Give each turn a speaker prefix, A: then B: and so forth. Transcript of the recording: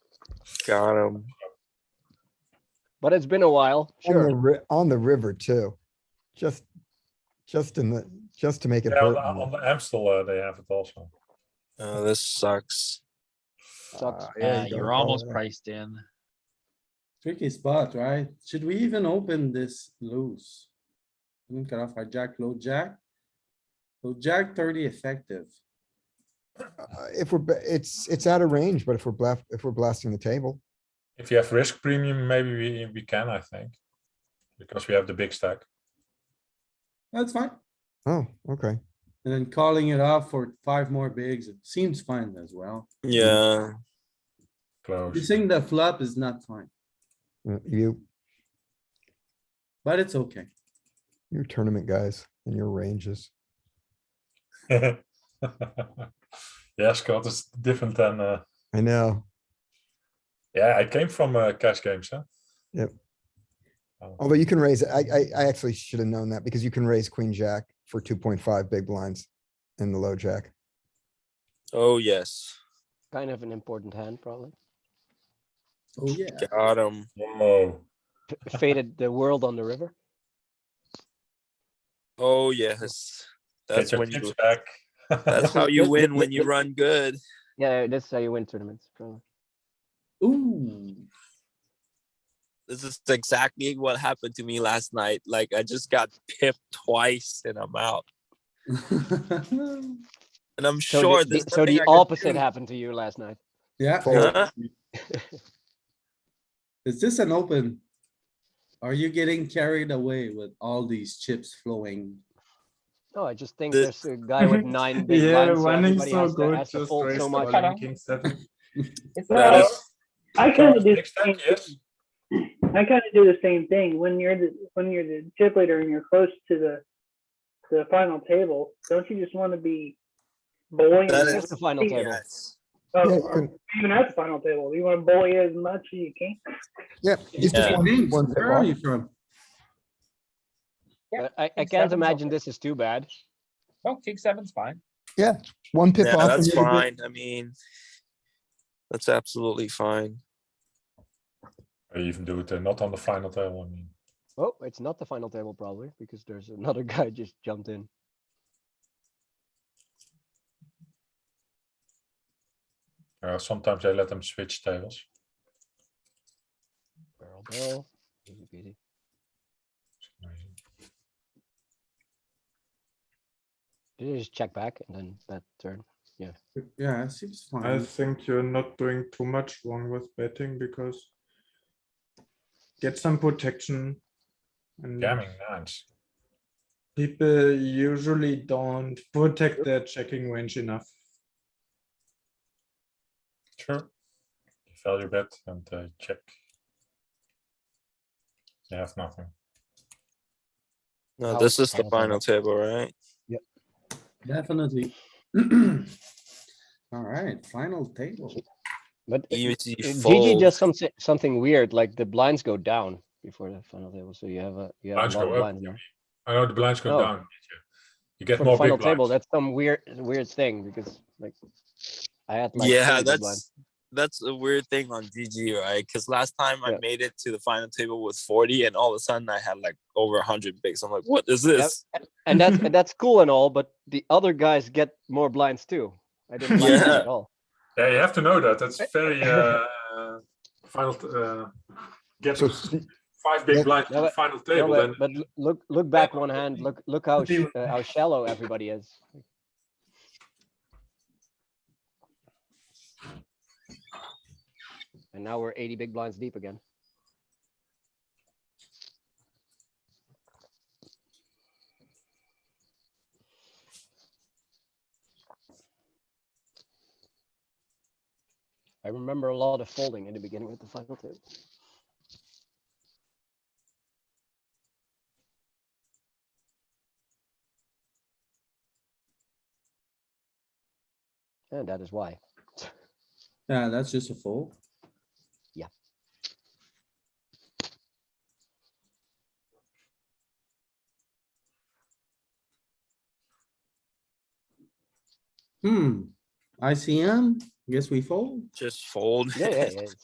A: Got him.
B: but it's been a while.
C: On the,
B: Sure.
C: ri- on the river too. Just, just in the, just to make it
D: Yeah,
C: hurt.
D: on,
C: a little.
D: on Amstel, uh, they have it also.
A: Oh, this sucks.
B: Sucks.
C: Ah, yeah,
E: Yeah,
C: you
E: you're
C: gotta call
E: almost
C: it out.
E: priced in.
F: Tricky spot, right? Should we even open this loose? I think off our jack, low jack. Low jack thirty effective.
C: Uh, If we're, ba- it's, it's out of range, but if we're blast, if we're blasting the table,
D: If you have risk premium, maybe we, we can, I think. Because we have the big stack.
F: That's fine.
C: oh, okay.
F: And then calling it off for five more bigs, it seems fine as well.
A: Yeah.
D: Close.
F: You think the flop is not fine,
C: Uh, You,
F: but it's okay.
C: you tournament guys and your ranges.
D: yeah, Scott, it's different than. Uh,
C: I know.
D: yeah, I came from uh, cash games. Huh?
C: Yep.
D: Oh,
C: Although you can raise, I, I, I actually should have known that because you can raise queen jack for two point five big blinds in the low jack.
A: Oh, yes.
B: Kind of an important hand, probably.
F: Oh, yeah.
A: Got him.
D: Whoa.
B: F- Faded the world on the river.
A: Oh, yes. That's
D: Get your
A: when
D: chips
A: you,
D: back.
A: that's how you win when you run good.
B: Yeah, that's how you win tournaments. probably.
F: Ooh,
A: This is exactly what happened to me last night. Like I just got pipped twice and I'm out. And I'm
B: So
A: sure
B: the,
A: this.
B: the, so the opposite happened to you last night.
F: yeah.
C: Fold.
F: Is this an open? Are you getting carried away with all these chips flowing?
B: No, Oh, I just think
A: The-
B: there's a guy with nine big
G: Yeah,
B: blinds, so
G: running's
B: everybody
G: so
B: has to,
G: good,
B: has to
G: just
B: fold
G: raise
B: so
G: the
B: much.
G: all-in king seven.
H: It's
D: That
H: not-
D: is-
H: I
D: That
H: kind
D: is
H: of do
D: big
H: the
D: stack,
H: same
D: yes.
H: thing. I kind of do the same thing when you're the when you're the chip leader and you're close to the to the final table. Don't you just want to be bullying?
A: That
B: That's the final
H: Yeah.
B: table.
A: Yes.
H: Oh,
C: Yeah, you
H: or
C: can-
H: even at the final table, you want to bully as much as you can.
C: Yeah. it's just
A: Yeah.
C: one-
F: James,
C: one
F: Where are
C: pip
F: you from?
H: Yeah,
B: But I, I
H: king
B: can't
H: seven's
B: imagine
H: okay.
B: this is too bad.
H: No, king seven's fine.
C: off- One pip
A: Yeah,
C: off. and
A: that's
C: you're good.
A: fine. I mean, that's absolutely fine.
D: Or even do it uh, not on the final table. I mean,
B: Oh, it's not the final table probably because there's another guy just jumped in.
D: uh, sometimes they let them switch tables.
B: Barrel, barrel. Easy peasy. Did you just check back and then that turn?
F: Yeah, it seems
G: I
F: fine.
G: think you're not doing too much wrong with betting because get some protection. And
D: Jamming, nines.
G: people usually don't protect their checking range enough.
D: Sure. Value bet and uh, check. They have nothing.
A: No,
B: Now
A: this is
B: it's
A: the final
B: final
A: table, right?
F: Definitely. All right, final table.
B: But it-
A: Easy
B: it- GG
A: fold.
B: does some, something weird, like the blinds go down before the final table, so you have a, you have
D: Blinds
B: a lot
D: go
B: of
D: up,
B: blinds. now.
D: I know the blinds go
B: Oh.
D: down. yeah. You get
B: For
D: more
B: the
D: big
B: final
D: blinds.
B: table, that's some weird, weird thing because like. I had like. three
A: yeah,
B: big blinds.
A: that's that's a weird thing on GG, right? Because last time I
B: Yeah.
A: made it to the final table with 40, and all of a sudden I had like over 100 bigs. I'm like, what is this?
B: And that's, and that's cool and all, but the other guys get more blinds too. I didn't like
A: Yeah.
B: that at all.
D: Yeah, you have to know that. That's very uh, final. t- Uh, get
C: So sn-
D: five big
C: yeah,
D: blinds
B: no,
D: to the
B: but-
D: final
B: No,
D: table.
B: but,
D: Then
B: but l- look, look back one
D: but
B: hand,
D: you-
B: look, look how,
G: but
B: sh-
G: you-
B: uh, how shallow everybody is. And now we're eighty big blinds deep again. I remember a lot of folding in the beginning with the final table. And that is why.
F: Yeah, that's just a fold. Hmm, ICM, guess we fold?
A: Just fold.
F: Hmm,
B: Yeah, yeah, yeah.